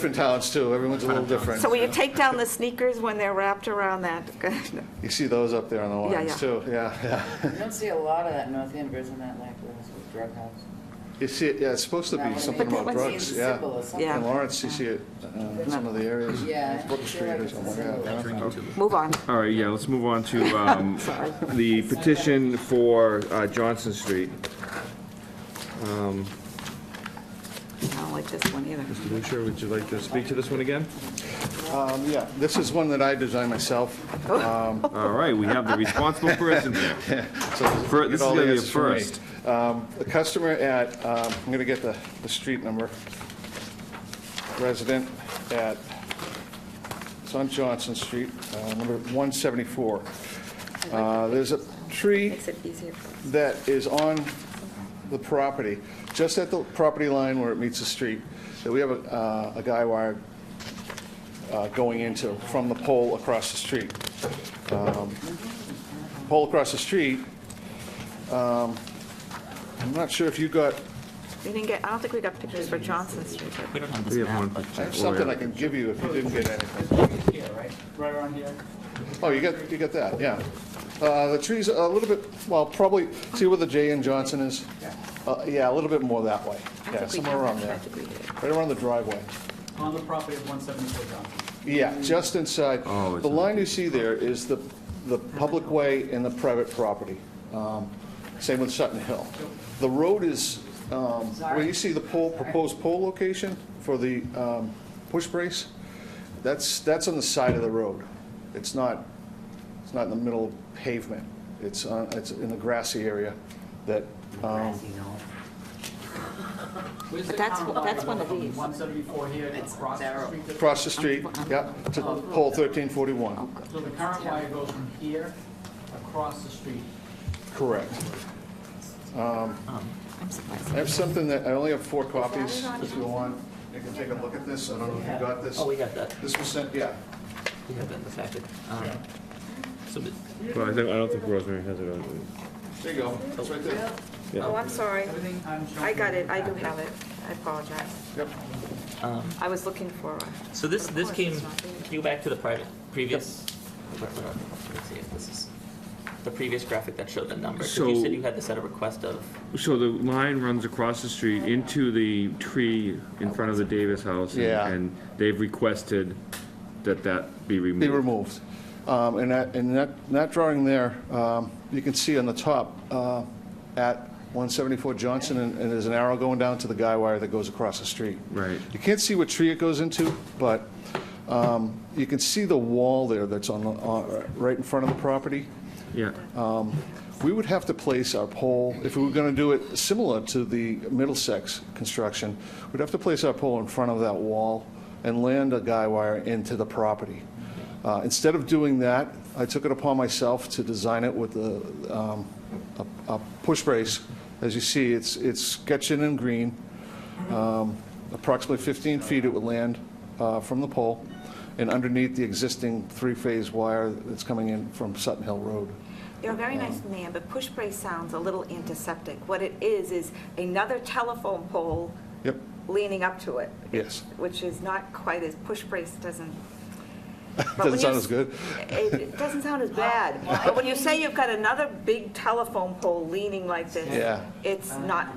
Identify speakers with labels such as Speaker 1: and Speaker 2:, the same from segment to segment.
Speaker 1: Different towns too, everyone's a little different.
Speaker 2: So will you take down the sneakers when they're wrapped around that?
Speaker 1: You see those up there on the
Speaker 2: Yeah,
Speaker 1: lines
Speaker 2: yeah.
Speaker 1: too, yeah, yeah.
Speaker 3: You don't see a lot of that in North Andover, isn't that like where it was with drug house?
Speaker 1: You see, it. yeah, it's supposed to
Speaker 3: That
Speaker 1: be
Speaker 3: one
Speaker 1: something
Speaker 3: maybe
Speaker 1: about
Speaker 3: it's
Speaker 1: drugs,
Speaker 3: in Sybil
Speaker 1: yeah.
Speaker 3: or something.
Speaker 2: Yeah.
Speaker 1: In Lawrence, you see it uh, in some of the areas.
Speaker 3: Yeah.
Speaker 1: Brook Street or something like that.
Speaker 2: Move on.
Speaker 4: All right, yeah, let's move on to um, the petition for uh, Johnson Street.
Speaker 2: I don't like this one either.
Speaker 4: Mr. Lucier, would you like to speak to this one again?
Speaker 1: Um, Yeah, this is one that I designed myself.
Speaker 4: All right, we have the responsible person there.
Speaker 1: So
Speaker 4: Fir-
Speaker 1: get
Speaker 4: this is
Speaker 1: all the
Speaker 4: gonna be a
Speaker 1: answers for me.
Speaker 4: first.
Speaker 1: Um, The customer at, um, I'm going to get the, the street number, resident at, it's on Johnson Street, uh, number 174. Uh, There's a tree
Speaker 2: Makes it easier.
Speaker 1: that is on the property, just at the property line where it meets the street, that we have a, uh, a guy wire uh, going into, from the pole across the street. Um, Pole across the street, um, I'm not sure if you got,
Speaker 2: We didn't get, I don't think we got pictures for Johnson Street. but-
Speaker 4: We have one.
Speaker 1: I have something I can give you if you didn't get anything.
Speaker 5: Here, right? Right around here.
Speaker 1: Oh, you got, you got that, yeah. Uh, The tree's a little bit, well, probably, see where the J in Johnson is? Uh, Yeah, a little bit more that way,
Speaker 2: I
Speaker 1: yeah,
Speaker 2: think we
Speaker 1: somewhere
Speaker 2: have
Speaker 1: around
Speaker 2: that. I
Speaker 1: there.
Speaker 2: think we did.
Speaker 1: Right around the driveway.
Speaker 5: On the property of 174 Johnson.
Speaker 1: Yeah, just inside.
Speaker 4: Oh, it's
Speaker 1: The
Speaker 4: not-
Speaker 1: line you see there is the, the public way and the private property. Um, Same with Sutton Hill. The road is, um, where you see the pole, proposed pole location for the um, push brace, that's, that's on the side of the road. It's not, it's not in the middle of pavement. It's, on- it's in the grassy area that,
Speaker 4: Oh.
Speaker 1: um,
Speaker 5: Where's
Speaker 2: But
Speaker 5: the
Speaker 2: that's-
Speaker 5: current line
Speaker 2: that's one of
Speaker 5: from
Speaker 2: these.
Speaker 5: 174 here to
Speaker 3: It's
Speaker 5: across the
Speaker 3: narrow.
Speaker 5: street.
Speaker 1: across the street, yeah, to pole 1341.
Speaker 5: So the current wire goes from here across the street.
Speaker 1: Correct.
Speaker 2: I'm surprised.
Speaker 1: I have something that, I only have four copies,
Speaker 2: it on
Speaker 1: if you want. You can take a look at this, I don't know if you got this.
Speaker 6: Oh, we got that.
Speaker 1: This was sent, yeah.
Speaker 6: We got that in the packet. Um, So, but-
Speaker 4: Well, I think, I don't think Rosemary has it on.
Speaker 1: There you go, it's right there.
Speaker 2: Oh, I'm sorry.
Speaker 5: Everything I'm showing.
Speaker 2: I got it. I do have it. I apologize.
Speaker 1: Yep.
Speaker 2: I was looking for, a-
Speaker 6: um, so this,
Speaker 2: Of
Speaker 6: this
Speaker 2: course,
Speaker 6: came,
Speaker 2: it's not there.
Speaker 6: can you go back to the private, previous? Let's see if this is, the previous graphic that showed the number. 'Cause you
Speaker 4: So-
Speaker 6: said you had this at a request of,
Speaker 4: So the line runs across the street into the tree in front of the Davis house. and-
Speaker 1: Yeah.
Speaker 4: And they've requested that that be removed.
Speaker 1: Be removed. Um, And that, and that, that drawing there, um, you can see on the top, uh, at 174 Johnson, and and there's an arrow going down to the guy wire that goes across the street.
Speaker 4: Right.
Speaker 1: You can't see what tree it goes into, but um, you can see the wall there that's on, the- on- right in front of the property.
Speaker 4: Yeah,
Speaker 1: We would have to place our pole, if we were going to do it similar to the Middlesex construction, we'd have to place our pole in front of that wall and land a guy wire into the property. Uh, Instead of doing that, I took it upon myself to design it with a, um, a a push brace. As you see, it's, it's sketched in in green Um, approximately 15 feet it would land uh, from the pole and underneath the existing three-phase wire that's coming in from Sutton Hill Road.
Speaker 2: you're a very nice man, but push brace sounds a little antiseptic. What it is, is another telephone pole
Speaker 1: Yep,
Speaker 2: leaning up to it.
Speaker 1: yes.
Speaker 2: which is not quite as, push brace doesn't. but when
Speaker 1: Doesn't sound
Speaker 2: you-
Speaker 1: as good.
Speaker 2: It it doesn't sound as bad, but when you say you've got another big telephone pole leaning like this.
Speaker 1: Yeah.
Speaker 2: It's not,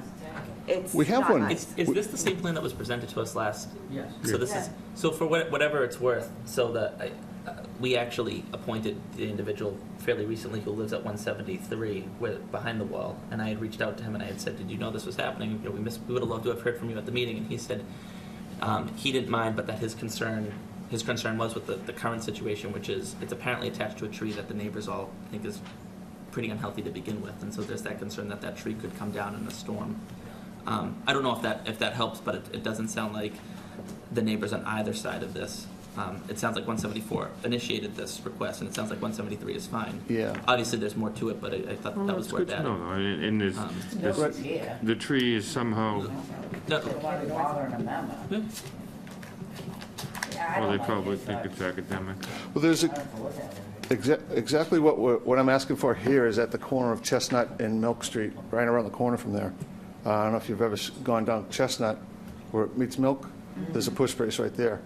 Speaker 2: it's
Speaker 1: We have
Speaker 2: not
Speaker 1: one.
Speaker 2: nice.
Speaker 6: is, is this the same plan that was presented to us last?
Speaker 5: Yes.
Speaker 6: So this is, so for what- whatever it's worth, so that, I- uh, we actually appointed the individual fairly recently who lives at 173, where, behind the wall, and I had reached out to him and I had said, did you know this was happening? You know, we missed, we would have loved to have heard from you at the meeting, and he said, um, he didn't mind, but that his concern, his concern was with the, the current situation, which is, it's apparently attached to a tree that the neighbors all think is pretty unhealthy to begin with, and so there's that concern that that tree could come down in a storm. Um, I don't know if that, if that helps, but it, it doesn't sound like the neighbors on either side of this. Um, it sounds like 174 initiated this request, and it sounds like 173 is fine.
Speaker 1: Yeah.
Speaker 6: Obviously, there's more to it, but I, I thought
Speaker 4: Well,
Speaker 6: that was
Speaker 4: Oh, that's good
Speaker 6: worth
Speaker 4: to
Speaker 6: adding.
Speaker 4: know, though, and and it's,
Speaker 6: Um,
Speaker 4: this-
Speaker 3: No, it's here.
Speaker 4: the tree is somehow,
Speaker 3: They
Speaker 6: No,
Speaker 3: want to bother them that much.
Speaker 6: yeah.
Speaker 3: Yeah, I
Speaker 4: well,
Speaker 3: don't
Speaker 4: they
Speaker 3: like
Speaker 4: probably
Speaker 3: it,
Speaker 4: think
Speaker 3: but
Speaker 4: it's academic.
Speaker 1: Well, there's
Speaker 3: I
Speaker 1: a-
Speaker 3: don't have to look at it.
Speaker 1: exa- exactly what, we're- what I'm asking for here is at the corner of Chestnut and Milk Street, right around the corner from there. Uh, I don't know if you've ever s- gone down Chestnut where it meets Milk. There's a push brace right there.